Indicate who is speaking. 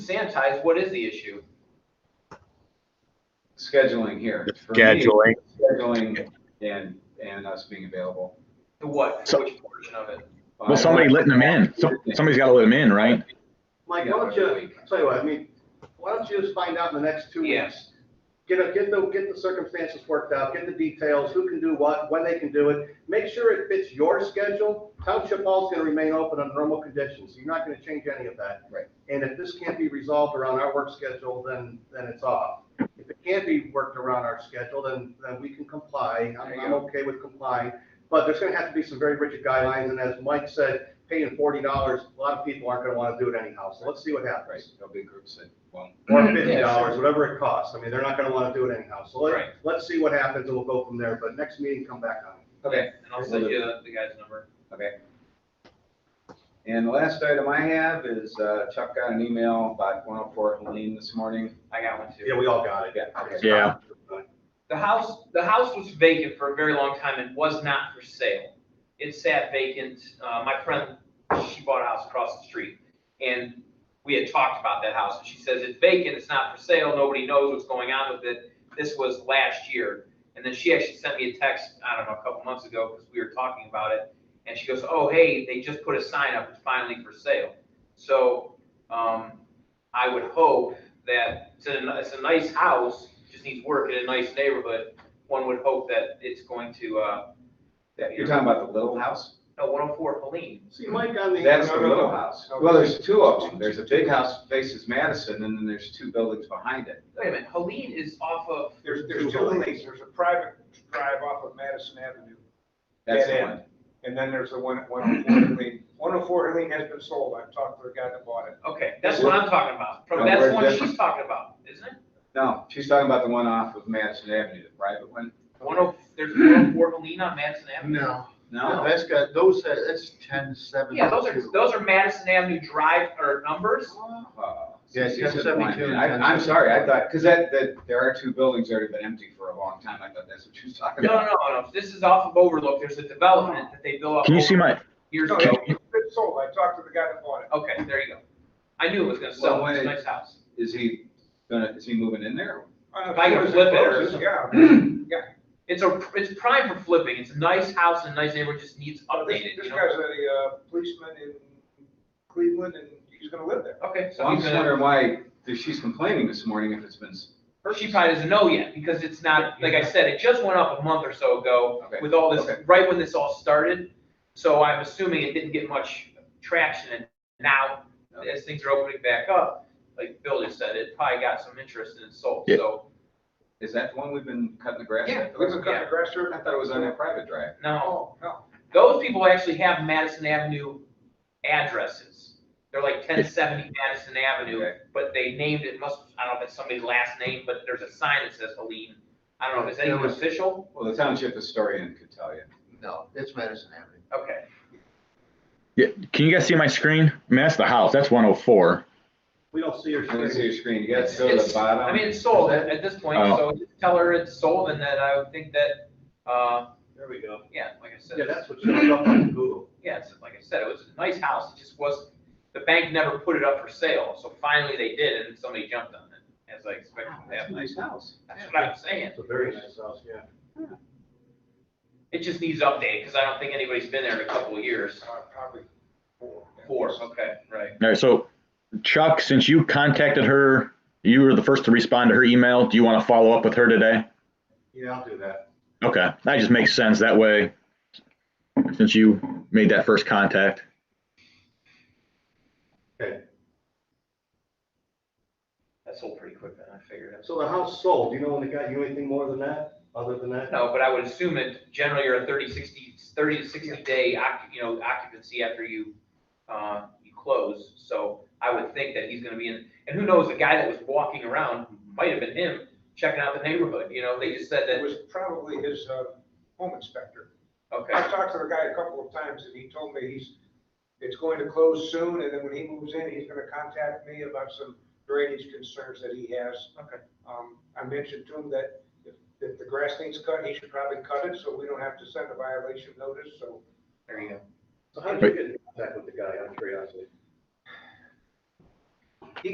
Speaker 1: sanitized, what is the issue?
Speaker 2: scheduling here. For me,
Speaker 3: scheduling.
Speaker 2: Scheduling and, and us being available.
Speaker 1: The what,
Speaker 3: So-
Speaker 1: which portion of it?
Speaker 3: Well, somebody letting them in. Some- Somebody's got to let them in, right?
Speaker 4: Mike, why don't you, tell you what, I mean, why don't you just find out in the next two
Speaker 1: Yeah.
Speaker 4: weeks? Get a, get the, get the circumstances worked out, get the details, who can do what, when they can do it. Make sure it fits your schedule. Township Hall's gonna remain open under normal conditions. You're not gonna change any of that.
Speaker 2: Right.
Speaker 4: And if this can't be resolved around our work schedule, then, then it's off. If it can't be worked around our schedule, then, then we can comply. I'm,
Speaker 1: There you
Speaker 4: I'm okay with complying. But there's gonna have to be some very rigid guidelines, and as Mike said, paying forty dollars, a lot of people aren't gonna wanna do it anyhow, so let's see what happens
Speaker 2: Right, there'll be groups that won't.
Speaker 4: or fifty
Speaker 1: Yeah,
Speaker 4: dollars, whatever it costs. I mean, they're not gonna wanna do it anyhow, so
Speaker 1: Right.
Speaker 4: let, let's see what happens and we'll go from there, but next meeting, come back on it.
Speaker 2: Okay,
Speaker 1: And I'll send you the guy's number.
Speaker 2: okay. And the last item I have is uh, Chuck got an email about 104 Helene this morning.
Speaker 1: I got one too.
Speaker 4: Yeah, we all got it.
Speaker 2: Yeah.
Speaker 3: Yeah.
Speaker 1: The house, the house was vacant for a very long time and was not for sale. It sat vacant. Uh, my friend, she bought a house across the street. And we had talked about that house and she says, it's vacant, it's not for sale, nobody knows what's going on with it. This was last year. And then she actually sent me a text, I don't know, a couple months ago, because we were talking about it. And she goes, oh, hey, they just put a sign up, it's finally for sale. So, um, I would hope that it's a, it's a nice house, just needs work in a nice neighborhood. One would hope that it's going to, uh,
Speaker 2: You're talking about the little house?
Speaker 1: no, one oh four Helene.
Speaker 4: See, Mike on the.
Speaker 2: That's the little house. Well, there's two of them. There's a big house faces Madison and then there's two buildings behind it.
Speaker 1: Wait a minute, Helene is off of,
Speaker 5: There's, there's two lanes, there's a private drive off of Madison Avenue,
Speaker 2: That's the
Speaker 5: Yeah,
Speaker 2: one.
Speaker 5: and then there's the one oh at 104 Lane. 104 Lane oh has been sold, I've talked to the guy that bought it.
Speaker 1: okay, that's what I'm talking about. From,
Speaker 2: No,
Speaker 1: that's the
Speaker 2: we're
Speaker 1: one
Speaker 2: different.
Speaker 1: she's talking about, isn't it?
Speaker 2: No, she's talking about the one off of Madison Avenue, the private one.
Speaker 1: One oh, there's one oh four Helene on Madison Avenue?
Speaker 6: No, no,
Speaker 2: No,
Speaker 6: that's got, those, uh, that's ten seventy-two.
Speaker 1: Yeah, those are, those are Madison Avenue drive or numbers.
Speaker 2: Oh,
Speaker 6: Yeah,
Speaker 2: see,
Speaker 6: you got
Speaker 2: she's at one.
Speaker 6: 72 and
Speaker 2: I-
Speaker 6: then
Speaker 2: I'm sorry, I
Speaker 6: 74.
Speaker 2: thought, because that, that, there are two buildings that have been empty for a long time, I thought that's what she was talking
Speaker 1: No, no,
Speaker 2: about.
Speaker 1: no, no, this is off of Overlook, there's a development that they built up.
Speaker 3: Can you see my,
Speaker 1: Years
Speaker 5: No,
Speaker 1: ago.
Speaker 5: it's been sold, I talked to the guy that bought it.
Speaker 1: Okay, there you go. I knew it was gonna sell, it's a nice house.
Speaker 2: Is he gonna, is he moving in there?
Speaker 5: Uh,
Speaker 1: If I can
Speaker 5: as
Speaker 1: flip it or
Speaker 5: close as-
Speaker 1: something.
Speaker 5: Yeah.
Speaker 1: It's a, it's prime for flipping, it's a nice house and a nice neighborhood, just needs
Speaker 5: This,
Speaker 1: updated,
Speaker 5: this
Speaker 1: you know?
Speaker 5: guy's a uh, policeman in Cleveland, and he's gonna live there.
Speaker 1: Okay,
Speaker 2: So
Speaker 1: so
Speaker 2: I'm
Speaker 1: he's
Speaker 2: just
Speaker 1: gonna,
Speaker 2: wondering why, if she's complaining this morning if it's been, s-
Speaker 1: she probably doesn't know yet, because it's not, like I said, it just went up a month or so ago
Speaker 2: okay,
Speaker 1: with all this,
Speaker 2: Okay.
Speaker 1: right when this all started. So I'm assuming it didn't get much traction, and now,
Speaker 2: okay.
Speaker 1: as things are opening back up, like Bill just said, it probably got some interest and it sold,
Speaker 3: Yeah.
Speaker 1: so,
Speaker 2: Is that the one we've been cutting the grass?
Speaker 1: Yeah,
Speaker 2: with?
Speaker 5: We've been cutting
Speaker 1: Yeah.
Speaker 5: grass there.
Speaker 2: I thought it was on that private drive.
Speaker 1: no.
Speaker 5: Oh, no.
Speaker 1: Those people actually have Madison Avenue addresses. They're like ten seventy Madison Avenue,
Speaker 2: Okay.
Speaker 1: but they named it, must, I don't know if it's somebody's last name, but there's a sign that says Helene. I don't know, is that
Speaker 6: It
Speaker 1: even
Speaker 6: was-
Speaker 1: official?
Speaker 2: Well, the township historian could tell you.
Speaker 6: No, it's Madison Avenue.
Speaker 1: Okay,
Speaker 3: yeah, can you guys see my screen? I mean, that's the house. That's 104.
Speaker 4: We don't see your.
Speaker 2: Let me see your screen, you got to
Speaker 1: It's-
Speaker 2: go to the
Speaker 1: it's-
Speaker 2: bottom.
Speaker 1: I mean, it's sold at, at this point,
Speaker 3: Oh.
Speaker 1: so just tell her it's sold and that I would think that, uh,
Speaker 4: There we go.
Speaker 1: yeah, like I said,
Speaker 4: Yeah, that's what shows up on Google.
Speaker 1: yeah, it's, like I said, it was a nice house, it just wasn't, the bank never put it up for sale, so finally they did and somebody jumped on it, as I expected
Speaker 2: Wow,
Speaker 1: to
Speaker 2: That's a
Speaker 1: happen.
Speaker 2: nice house.
Speaker 1: That's what I'm saying.
Speaker 4: It's a very nice house, yeah.
Speaker 1: It just needs updated, because I don't think anybody's been there in a couple of years.
Speaker 5: Uh, Probably four.
Speaker 1: Four, okay, right.
Speaker 3: All right, so Chuck, since you contacted her, you were the first to respond to her email. Do you want to follow up with her today?
Speaker 4: Yeah, I'll do that.
Speaker 3: Okay, that just makes sense. That way, since you made that first contact.
Speaker 1: That sold pretty quick, then, I figured that's.
Speaker 4: So the house sold, do you know when they got you anything more than that, other than that?
Speaker 1: No, but I would assume that generally you're a 30, 60 30 to sixty day, occu- you know, occupancy after you, uh, you close. So I would think that he's gonna be in, and who knows, the guy that was walking around, might have been him, checking out the neighborhood, you know, they just said
Speaker 5: It
Speaker 1: that,
Speaker 5: was probably his uh, home inspector.
Speaker 1: okay,
Speaker 5: I've talked to the guy a couple of times and he told me he's, it's going to close soon and then when he moves in, he's gonna contact me about some drainage concerns that he has.
Speaker 1: Okay.
Speaker 5: Um, I mentioned to him that if, if the grass needs cut, he should probably cut it so we don't have to send a violation notice, so.
Speaker 1: there you go.
Speaker 4: So how did you get in contact with the guy, out of curiosity?